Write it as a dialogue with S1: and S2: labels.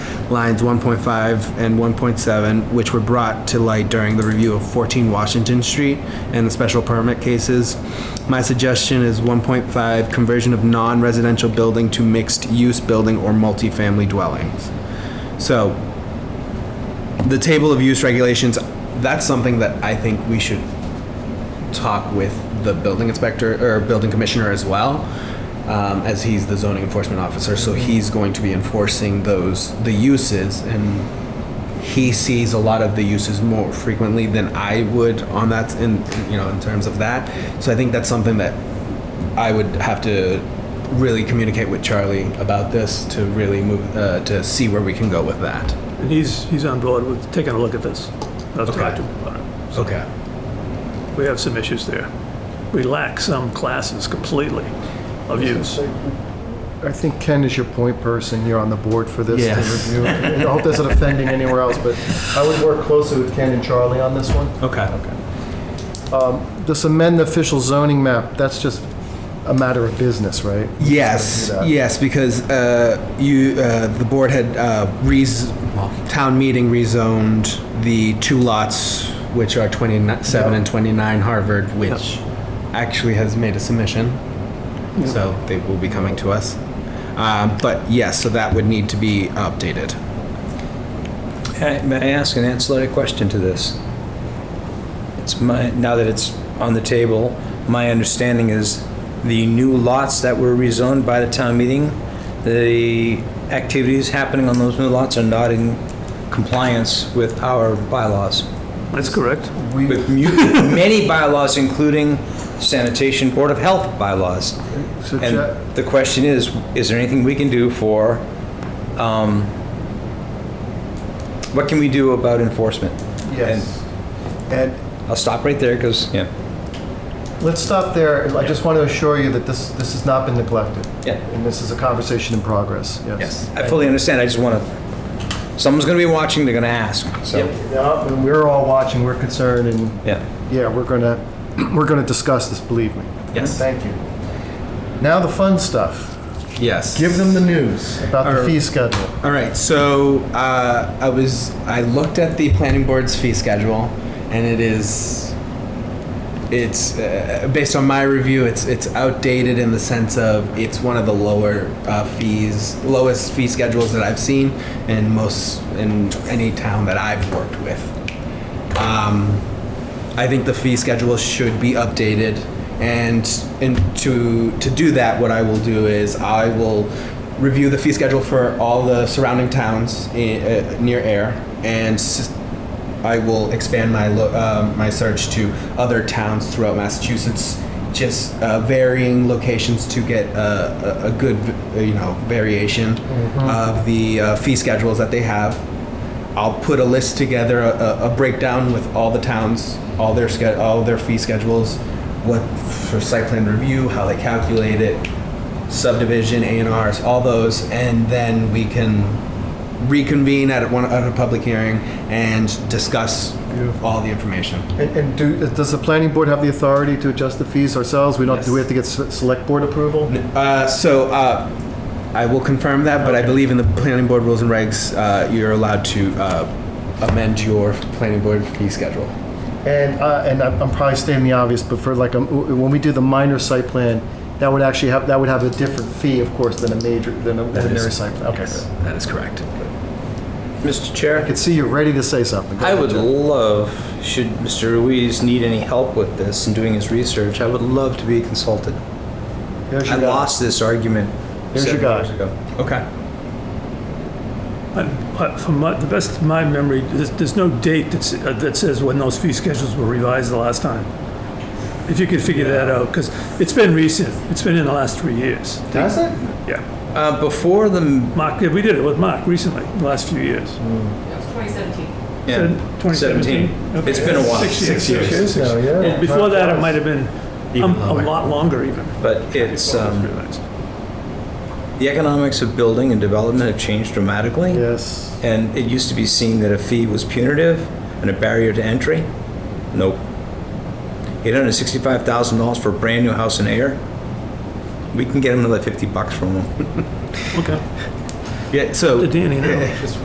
S1: lines 1.5 and 1.7, which were brought to light during the review of 14 Washington Street and the special permit cases. My suggestion is 1.5, conversion of non-residential building to mixed-use building or multifamily dwellings. So, the table of use regulations, that's something that I think we should talk with the building inspector or building commissioner as well, um, as he's the zoning enforcement officer. So he's going to be enforcing those, the uses, and he sees a lot of the uses more frequently than I would on that, in, you know, in terms of that. So I think that's something that I would have to really communicate with Charlie about this to really move, uh, to see where we can go with that.
S2: And he's, he's on board with taking a look at this. I've talked to him about it.
S1: Okay.
S2: We have some issues there. We lack some classes completely of use.
S3: I think Ken is your point person. You're on the board for this
S1: Yeah.
S3: to review. I hope that's not offending anywhere else, but I would work closely with Ken and Charlie on this one.
S1: Okay. Okay.
S3: This amend the official zoning map, that's just a matter of business, right?
S1: Yes,
S3: Do that.
S1: yes, because uh, you, uh, the board had uh, rez, well, town meeting rezoned the two lots, which are 27 and 29 Harvard, which actually has made a submission. So they will be coming to us. Um, But yes, so that would need to be updated.
S4: Hey, May I ask an ancillary question to this? It's my, now that it's on the table, my understanding is the new lots that were rezoned by the town meeting, the activities happening on those new lots are not in compliance with our bylaws.
S2: That's correct.
S4: With mu- many bylaws, including sanitation, board of health bylaws.
S3: So Jack-
S4: And the question is, is there anything we can do for, um, what can we do about enforcement?
S3: Yes. And
S4: And I'll stop right there because, yeah.
S3: let's stop there. I just want to assure you that this, this has not been neglected.
S4: Yeah.
S3: And this is a conversation in progress, yes.
S4: I fully understand. I just want to, someone's going to be watching, they're going to ask, so,
S3: Yeah, and we're all watching, we're concerned, and
S4: yeah.
S3: yeah, we're gonna, we're gonna discuss this, believe me.
S1: Yes.
S3: Thank you. Now the fun stuff.
S1: Yes.
S3: Give them the news about the fee schedule.
S1: All right, so uh, I was I looked at the planning board's fee schedule, and it is it's uh, based on my review. It's it's outdated in the sense of it's one of the lower uh, fees, lowest fee schedules that I've seen in most in any town that I've worked with. Um, I think the fee schedule should be updated, and and to to do that, what I will do is I will review the fee schedule for all the surrounding towns i uh, near air, and s- I will expand my lo- uh, my search to other towns throughout Massachusetts, just uh, varying locations to get uh, a, a good uh, you know variation of the uh, fee schedules that they have. I'll put a list together, a, a breakdown with all the towns, all their sched, all their fee schedules, what for site plan review, how they calculate it, subdivision, A and Rs, all those, and then we can reconvene at one, at a public hearing and discuss all the information.
S3: And, and do, does the planning board have the authority to adjust the fees ourselves? We don't, do we have to get se- select board approval?
S1: Uh, so, uh, I will confirm that, but I believe in the planning board rules and regs, uh, you're allowed to, uh, amend your planning board fee schedule.
S3: And, uh, and I'm I'm probably stating the obvious, but for like, um, w- when we do the minor site plan, that would actually have, that would have a different fee, of course, than a major, than a ordinary site plan. Okay. good.
S1: That is correct.
S4: Mr.
S3: I
S4: Chair?
S3: could see you're ready to say something. Go
S4: I
S3: ahead,
S4: would
S3: Jeff.
S4: love, should Mr. Ruiz need any help with this and doing his research, I would love to be consulted.
S3: There's
S4: I
S3: your guy.
S4: lost this argument
S3: Here's your
S4: seven
S3: guy.
S4: years ago.
S1: Okay.
S2: I- I- From my, the best of my memory, there's, there's no date that's, uh, that says when those fee schedules were revised the last time. If you could figure that out, because it's been recent. It's been in the last three years.
S3: Does it?
S2: Yeah.
S4: Uh, Before the,
S2: Mark, yeah, we did it with Mark recently, the last few years.
S5: It's 2017.
S4: yeah,
S2: 2017?
S4: 17. It's been a while.
S2: Six years. Six
S4: years.
S2: years.
S3: No, yeah.
S2: And Before that, it might have been um, a lot longer even.
S4: But it's,
S2: before it was
S4: um,
S2: realized.
S4: The economics of building and development have changed dramatically.
S3: Yes.
S4: And it used to be seen that a fee was punitive and a barrier to entry. Nope. $865,000 for a brand new house in air. We can get another 50 bucks from them.
S2: Okay.
S1: Yeah, so
S2: To Danny now.
S1: just